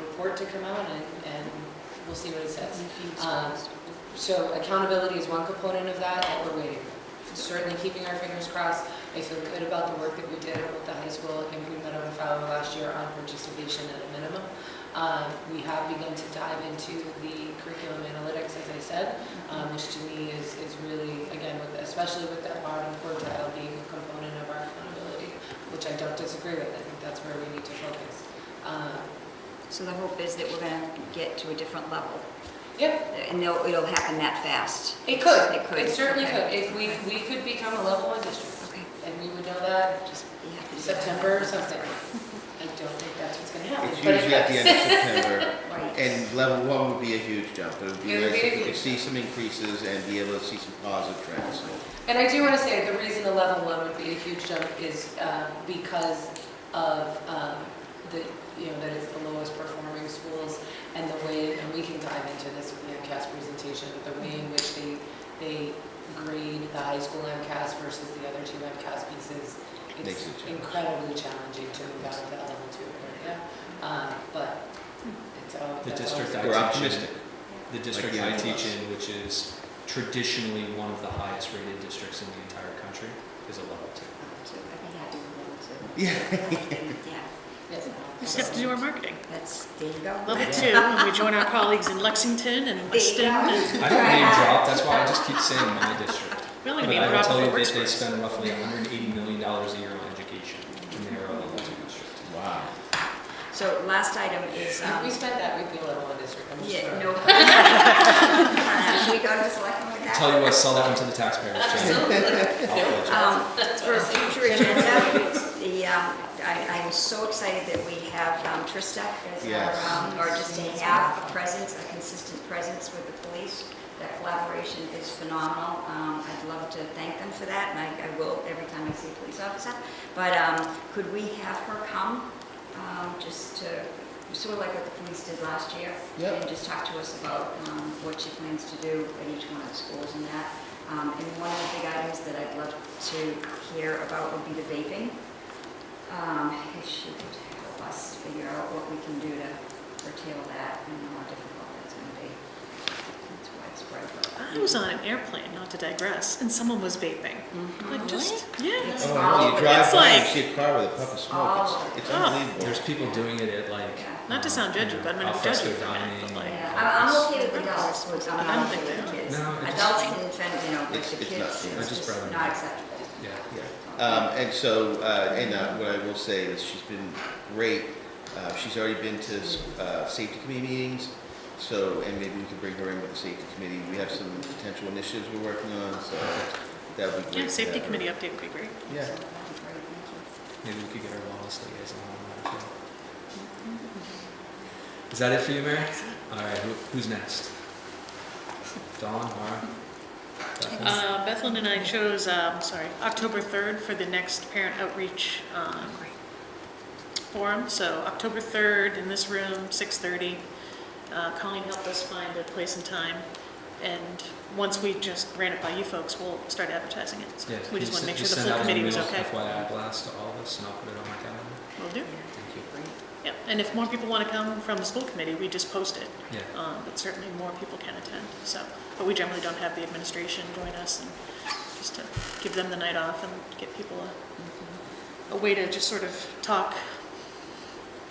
report to come out and, and we'll see what it says. Um, So accountability is one component of that that we're waiting. Certainly keeping our fingers crossed. I feel good about the work that we did at both the high school and Green Meadow and Fowler last year on participation at a minimum. Um, We have begun to dive into the curriculum analytics, as I said, um, which to me is, is really, again, with- especially with that bottom quartile being a component of our accountability, which I don't disagree with. I think that's where we need to focus. Um, So the hope is that we're going to get to a different level, Yep, and it'll, it'll happen that fast. It could. It could. It certainly could. Okay. If we, we could become a level one district, Okay. and we would know that just Yeah. September or something. I don't think that's what's gonna happen. It's but it usually at the does. end of September, Right. and level one would be a huge jump. It would It be would nice be a if we could huge see some increases and be able to see some positive trends. So And I do want to say, the reason the level one would be a huge jump is uh, because of um, the, you know, that it's the lowest performing schools and the way, and we can dive into this with the MCAS presentation, but the way in which they, they grade the high school MCAS versus the other two MCAS pieces. Makes It's it challenging. incredibly challenging to move out of that level two area. Uh, But it's all. The that's always- district I We're teach in- optimistic. The district the I other teach ones. in, which is traditionally one of the highest rated districts in the entire country, is a level two. So I think I do remember, so, Yeah, Yes. Just have to do our marketing. that's, there you go. Level two, and we join our colleagues in Lexington and There you Weston. and- go. I don't name drop, that's why I just keep saying my district. We only But name I will drop tell if you it works that for they us. spend roughly hundred and eighty million dollars a year on education, and they are a level two district. Wow. So last item is, If uh, we um, spent that, we'd be a level one district, I'm just sorry. yeah, no. Uh, Can we go to selectmen with that? Tell you what, sell that one to the taxpayers, Jen. I'll pledge Um, it. For future agenda, the, um, I, I'm so excited that we have um, Trista as Yes. our, um, or just to have a presence, a consistent presence with the police. That collaboration is phenomenal. Um, I'd love to thank them for that, and I, I will every time I see a police officer. But, um, could we have her come, um, just to, sort of like what the police did last year? Yep. And just talk to us about, um, what she plans to do at each one of the schools and that. Um, and one of the big items that I'd love to hear about would be the vaping. Um, if she could help us figure out what we can do to curtail that and how difficult that's gonna be. It's widespread, but. I was on an airplane, not to digress, and someone was vaping. Mm-hmm. Like just, yeah. It's Oh, all- You drive it's by and like- see a car with a puff of smoke, it's, it's Oh. There's unbelievable. people doing it at like. Yeah. Not to sound judgy, but I'm gonna Al judge you fresco for a dining, minute, but like- Yeah, I'm, I'm okay with the adults, but I'm I don't not okay think with the they kids. No, it just- Adults can defend, you know, but It's- the it's not- kids, yeah. it's I just brought just it not up. acceptable. Yeah. Yeah. Um, and so, uh, and, uh, what I will say is she's been great. Uh, she's already been to, uh, safety committee meetings, so, and maybe we can bring her in with the safety committee. We have some potential initiatives we're working on, so that would be great. Yeah, to safety have her. committee update would be great. Yeah. So, that'd be great, thank you. Maybe we could get our wellness liaison on that too. Is that it for you, Mary? All right, who, who's next? Dawn, Mara? Bethany? Uh, Bethlen and I chose, um, sorry, October 3rd for the next parent outreach um, forum. So October 3rd in this room, 6:30. Uh, Colleen helped us find a place and time. And once we just ran it by you folks, we'll start advertising it. So Yeah, We can you just want to sen- make sure the send full out an committee was email okay. FYI blast to all of us and I'll put it on my calendar. Will do. Thank you. Yeah, and if more people want to come from the school committee, we just post it. Yeah. Um, But certainly more people can attend, so, but we generally don't have the administration join us, and just to give them the night off and get people a, a way to just sort of talk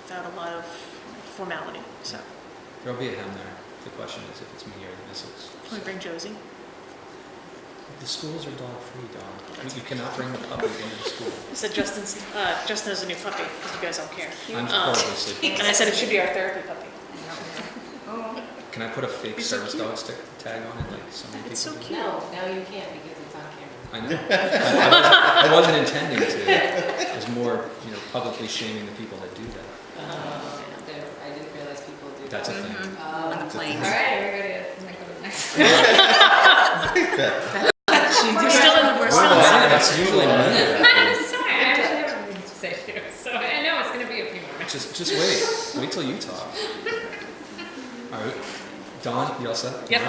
without a lot of formality, so. There'll be a hem there. The question is if it's me or the missiles. Can we bring Josie? The schools are dog free, Dawn. You- You cannot bring the puppy into the school. I said Justin's, uh, Justin has a new puppy, because you guys don't care. I'm Um, horribly sleepy. And I said it should be our therapy puppy. Oh, Can I put a fake He's so service cute. dog stick tag on it like so many people do? It's so cute. No, now you can't because it's on camera. I know. I wasn't- I wasn't intending to. It was more, you know, publicly shaming the people that do that. Uh, there- I didn't realize people do that. Uh-huh. That's a thing. Um, on the plane. All right, everybody, let's go to the next. We're still in, we're still in. Wow, That's usually me. I'm sorry, I actually have a to say too, so I know it's gonna be a few more minutes. Just, just wait. Wait till you talk. All right. Dawn, you all set? No? Yep.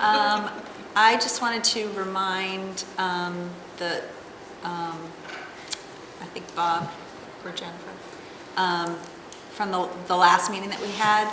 Um, I just wanted to remind um, the, um, I think Bob or Jennifer, um, from the, the last meeting that we had,